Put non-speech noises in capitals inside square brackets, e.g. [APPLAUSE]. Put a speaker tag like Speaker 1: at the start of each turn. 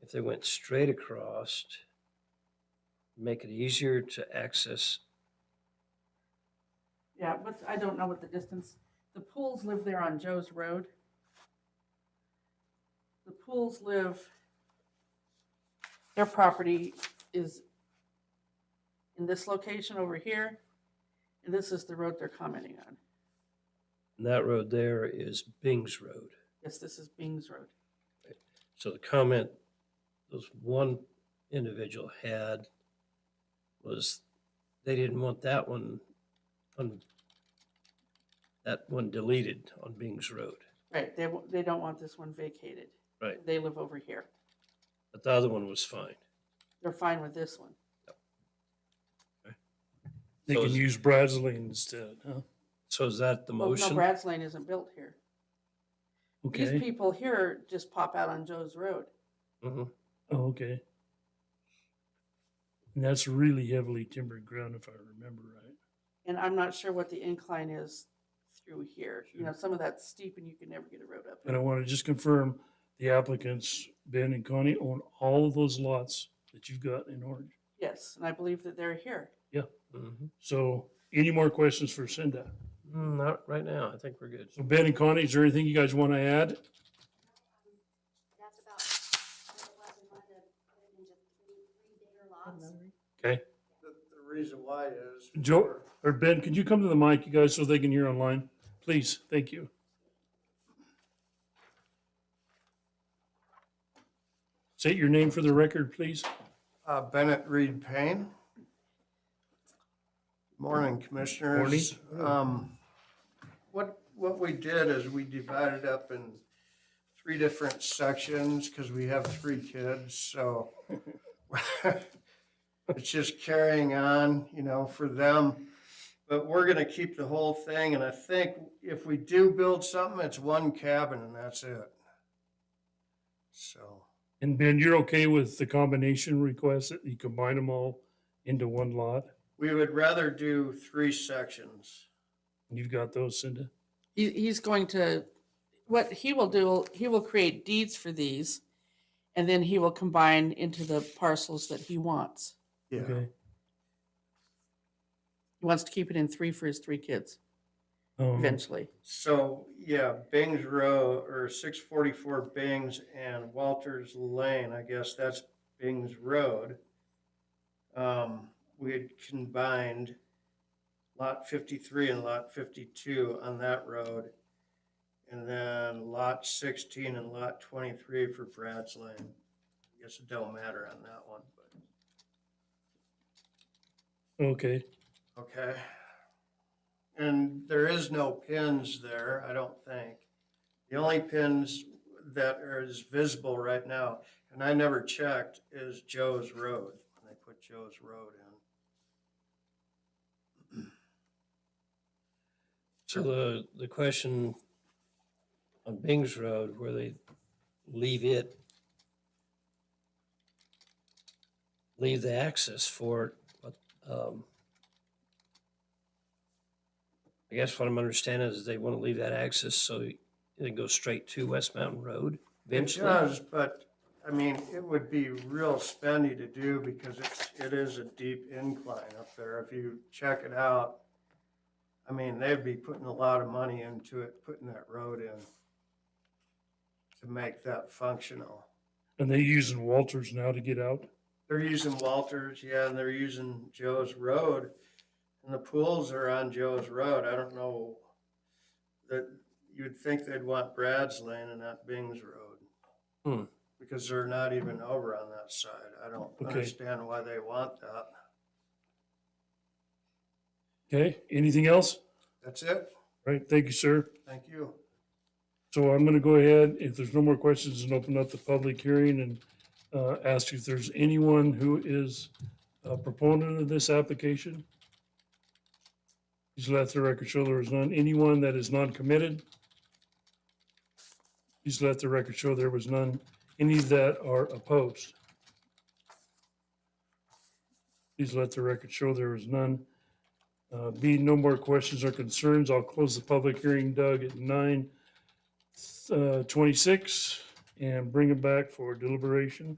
Speaker 1: if they went straight across, make it easier to access.
Speaker 2: Yeah, what's, I don't know what the distance, the pools live there on Joe's Road. The pools live, their property is in this location over here, and this is the road they're commenting on.
Speaker 1: And that road there is Bing's Road.
Speaker 2: Yes, this is Bing's Road.
Speaker 1: So the comment those one individual had was they didn't want that one on that one deleted on Bing's Road.
Speaker 2: Right, they, wa- they don't want this one vacated.
Speaker 1: Right.
Speaker 2: They live over here.
Speaker 1: But the other one was fine.
Speaker 2: They're fine with this one.
Speaker 3: They
Speaker 1: So
Speaker 3: can
Speaker 1: is-
Speaker 3: use Bradley instead, huh?
Speaker 1: So is that the
Speaker 2: Well, no,
Speaker 1: motion?
Speaker 2: Brad's Lane isn't built here. These
Speaker 3: Okay,
Speaker 2: people here just pop out on Joe's Road.
Speaker 1: Mhm.
Speaker 3: oh, okay. And that's really heavily timbered ground if I remember right.
Speaker 2: And I'm not sure what the incline is through here. You know, some of that's steep and you can never get a road up.
Speaker 3: And I
Speaker 2: it.
Speaker 3: want to just confirm the applicants, Ben and Connie, own all of those lots that you've got in Orange.
Speaker 2: Yes, and I believe that they're here.
Speaker 1: Mhm.
Speaker 3: So any more questions for Cinda?
Speaker 1: Mm, Not right now. I think we're good.
Speaker 3: So Ben and Connie, is there anything you guys want to add?
Speaker 4: That's about what it was in one of the, put it into three, three bigger lots.
Speaker 3: Okay,
Speaker 5: The, the reason why is.
Speaker 3: Joe-
Speaker 5: for-
Speaker 3: or Ben, could you come to the mic, you guys, so they can hear online? Please, thank you. State your name for the record, please.
Speaker 5: Uh, Bennett Reed Payne. Morning, Commissioners. Um, What, what we did is we divided up in three different sections because we have three kids, so [LAUGHS] it's just carrying on, you know, for them. But we're gonna keep the whole thing, and I think if we do build something, it's one cabin and that's it. So.
Speaker 3: And Ben, you're okay with the combination request that you combine them all into one lot?
Speaker 5: We would rather do three sections.
Speaker 3: And You've got those, Cinda?
Speaker 2: He, he's going to, what he will do, he will create deeds for these and then he will combine into the parcels that he wants.
Speaker 3: Okay.
Speaker 2: He wants to keep it in three for his three kids
Speaker 3: Um,
Speaker 2: eventually.
Speaker 5: So, yeah, Bing's Row or six forty-four Bing's and Walters Lane, I guess that's Bing's Road. Um, we had combined lot fifty-three and lot fifty-two on that road. And then lot sixteen and lot twenty-three for Brad's Lane. I Guess it don't matter on that one, but,
Speaker 3: Okay,
Speaker 5: okay. And there is no pins there, I don't think. The only pins that are is visible right now, and I never checked, is Joe's Road. When They put Joe's Road in.
Speaker 1: So the, the question on Bing's Road, where they leave it, leave the access for, it, but, um, I guess what I'm understanding is they want to leave that access so it goes straight to West Mountain Road
Speaker 5: It
Speaker 1: eventually.
Speaker 5: does, but, I mean, it would be real spendy to do because it's, it is a deep incline up there. If you check it out, I mean, they'd be putting a lot of money into it, putting that road in to make that functional.
Speaker 3: and they using Walters now to get out?
Speaker 5: They're using Walters, yeah, and they're using Joe's Road. And the pools are on Joe's Road. I don't know that you'd think they'd want Brad's Lane and not Bing's Road.
Speaker 1: Hmm.
Speaker 5: Because they're not even over on that side. I don't
Speaker 3: Okay.
Speaker 5: understand why they want that.
Speaker 3: Okay, anything else?
Speaker 5: That's it.
Speaker 3: Right, thank you, sir.
Speaker 5: Thank you.
Speaker 3: So I'm gonna go ahead, if there's no more questions, and open up the public hearing and uh, ask if there's anyone who is a proponent of this application. Please let the record show there is none. Anyone that is non-committed? Please let the record show there was none. Any that are opposed? Please let the record show there was none. Uh, Being no more questions or concerns, I'll close the public hearing, Doug, at nine uh, 26 and bring it back for deliberation.